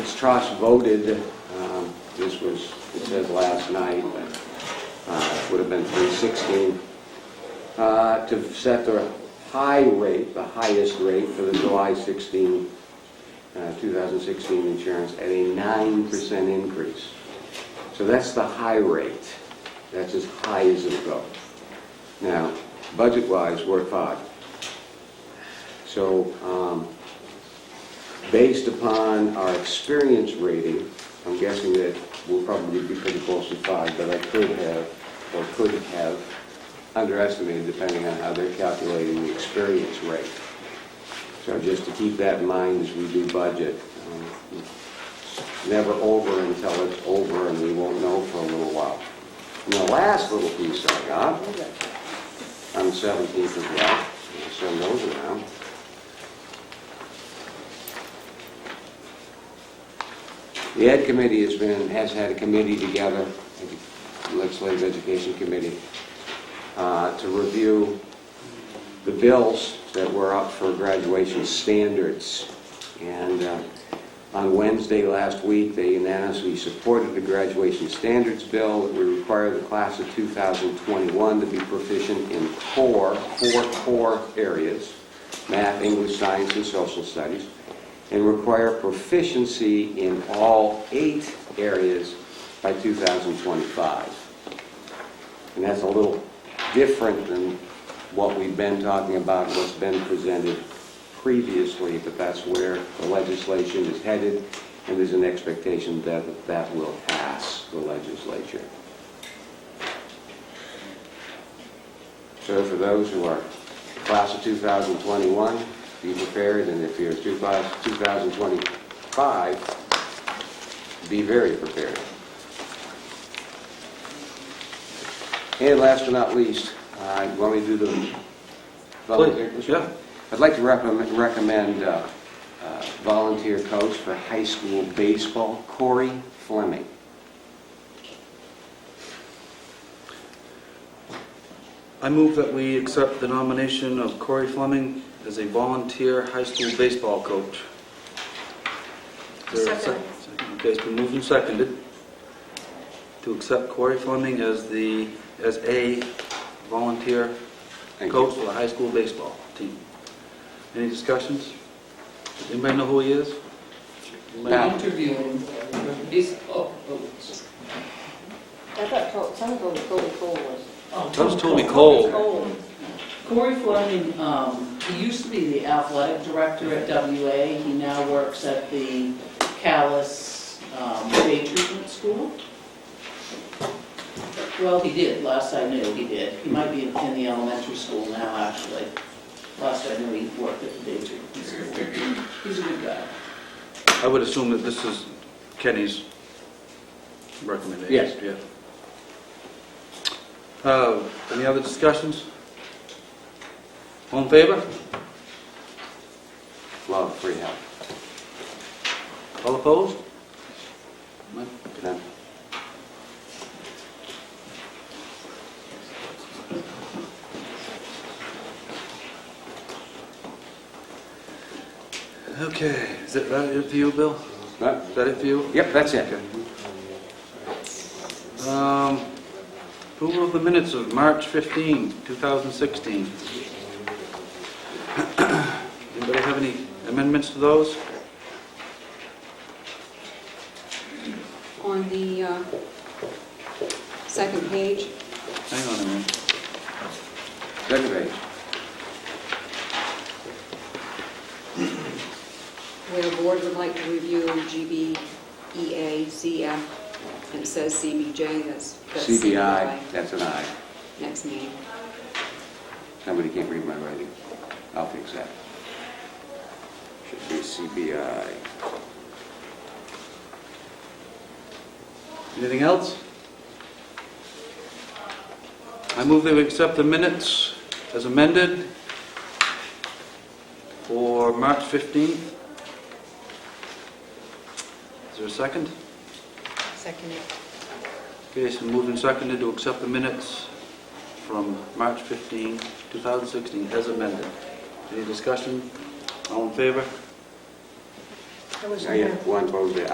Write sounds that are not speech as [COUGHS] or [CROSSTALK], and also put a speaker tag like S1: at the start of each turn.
S1: trust voted, um, this was, it says last night, but uh, it would have been 316, uh, to set the high rate, the highest rate for the July 16, uh, 2016 insurance at a 9% increase. So that's the high rate. That's as high as it'll go. Now, budget-wise, we're at five. So um, based upon our experience rating, I'm guessing that we'll probably be pretty close to five, but I could have, or could have underestimated, depending on how they're calculating the experience rate. So just to keep that in mind as we do budget, um, never over until it's over, and we won't know for a little while. And the last little piece I got, on the 17th as well, I'll send those around. The Ed Committee has been, has had a committee together, the Legislative Education Committee, uh, to review the bills that were up for graduation standards. And uh, on Wednesday last week, they unanimously supported the graduation standards bill that would require the class of 2021 to be proficient in core, four core areas, math, English, science, and social studies, and require proficiency in all eight areas by 2025. And that's a little different than what we've been talking about, what's been presented previously, but that's where the legislation is headed, and there's an expectation that that will pass the legislature. So for those who are class of 2021, be prepared, and if you're two- class of 2025, be very prepared. And last but not least, uh, you want me to do the volunteer?
S2: Please, yeah.
S1: I'd like to recommend- recommend uh, uh, volunteer coach for high school baseball, Corey Fleming.
S2: I move that we accept the nomination of Corey Fleming as a volunteer high school baseball coach. Is there a sec-
S3: Second.
S2: second? Okay, it's been moved and seconded to accept Corey Fleming as the, as a volunteer
S1: Thank you.
S2: coach for the high school baseball team. Any discussions? Does anybody know who he is? Anybody
S1: No.
S2: know?
S4: My interview is, oh, oh,
S3: I thought Col- some of them were Colby Cole was.
S4: oh.
S2: That was Toby Cole.
S3: Cole.
S4: Corey Fleming, um, he used to be the athletic director at WA. He now works at the Callis um, Day Treatment School. Well, he did, last I knew, he did. He might be in in the elementary school now, actually. Last I knew, he worked at the Day Treatment School. He's a good guy.
S2: I would assume that this is Kenny's recommendation.
S1: Yes.
S2: yeah. Uh, Any other discussions? All in favor?
S1: Love free help.
S2: All opposed? None?
S1: None?
S2: Okay, is that that it for you, Bill?
S1: No?
S2: Is that it for you?
S1: Yep, that's it.
S2: Um, Approval of the minutes of March 15, 2016. [COUGHS] Anybody have any amendments to those?
S5: on the uh, second page,
S2: Hang on a minute.
S1: Second page.
S5: where the board would like to review E GBEA, CF, and it says CBJ, that's that's
S1: CBI, that's an I.
S5: Next meeting.
S1: Somebody can't read my writing. I'll fix that. Should be CBI.
S2: Anything else? I move that we accept the minutes as amended for March 15th. Is there a second?
S5: Second.
S2: Okay, so moved and seconded to accept the minutes from March 15, 2016, as amended. Any discussion? All in favor?
S1: I have one vote there.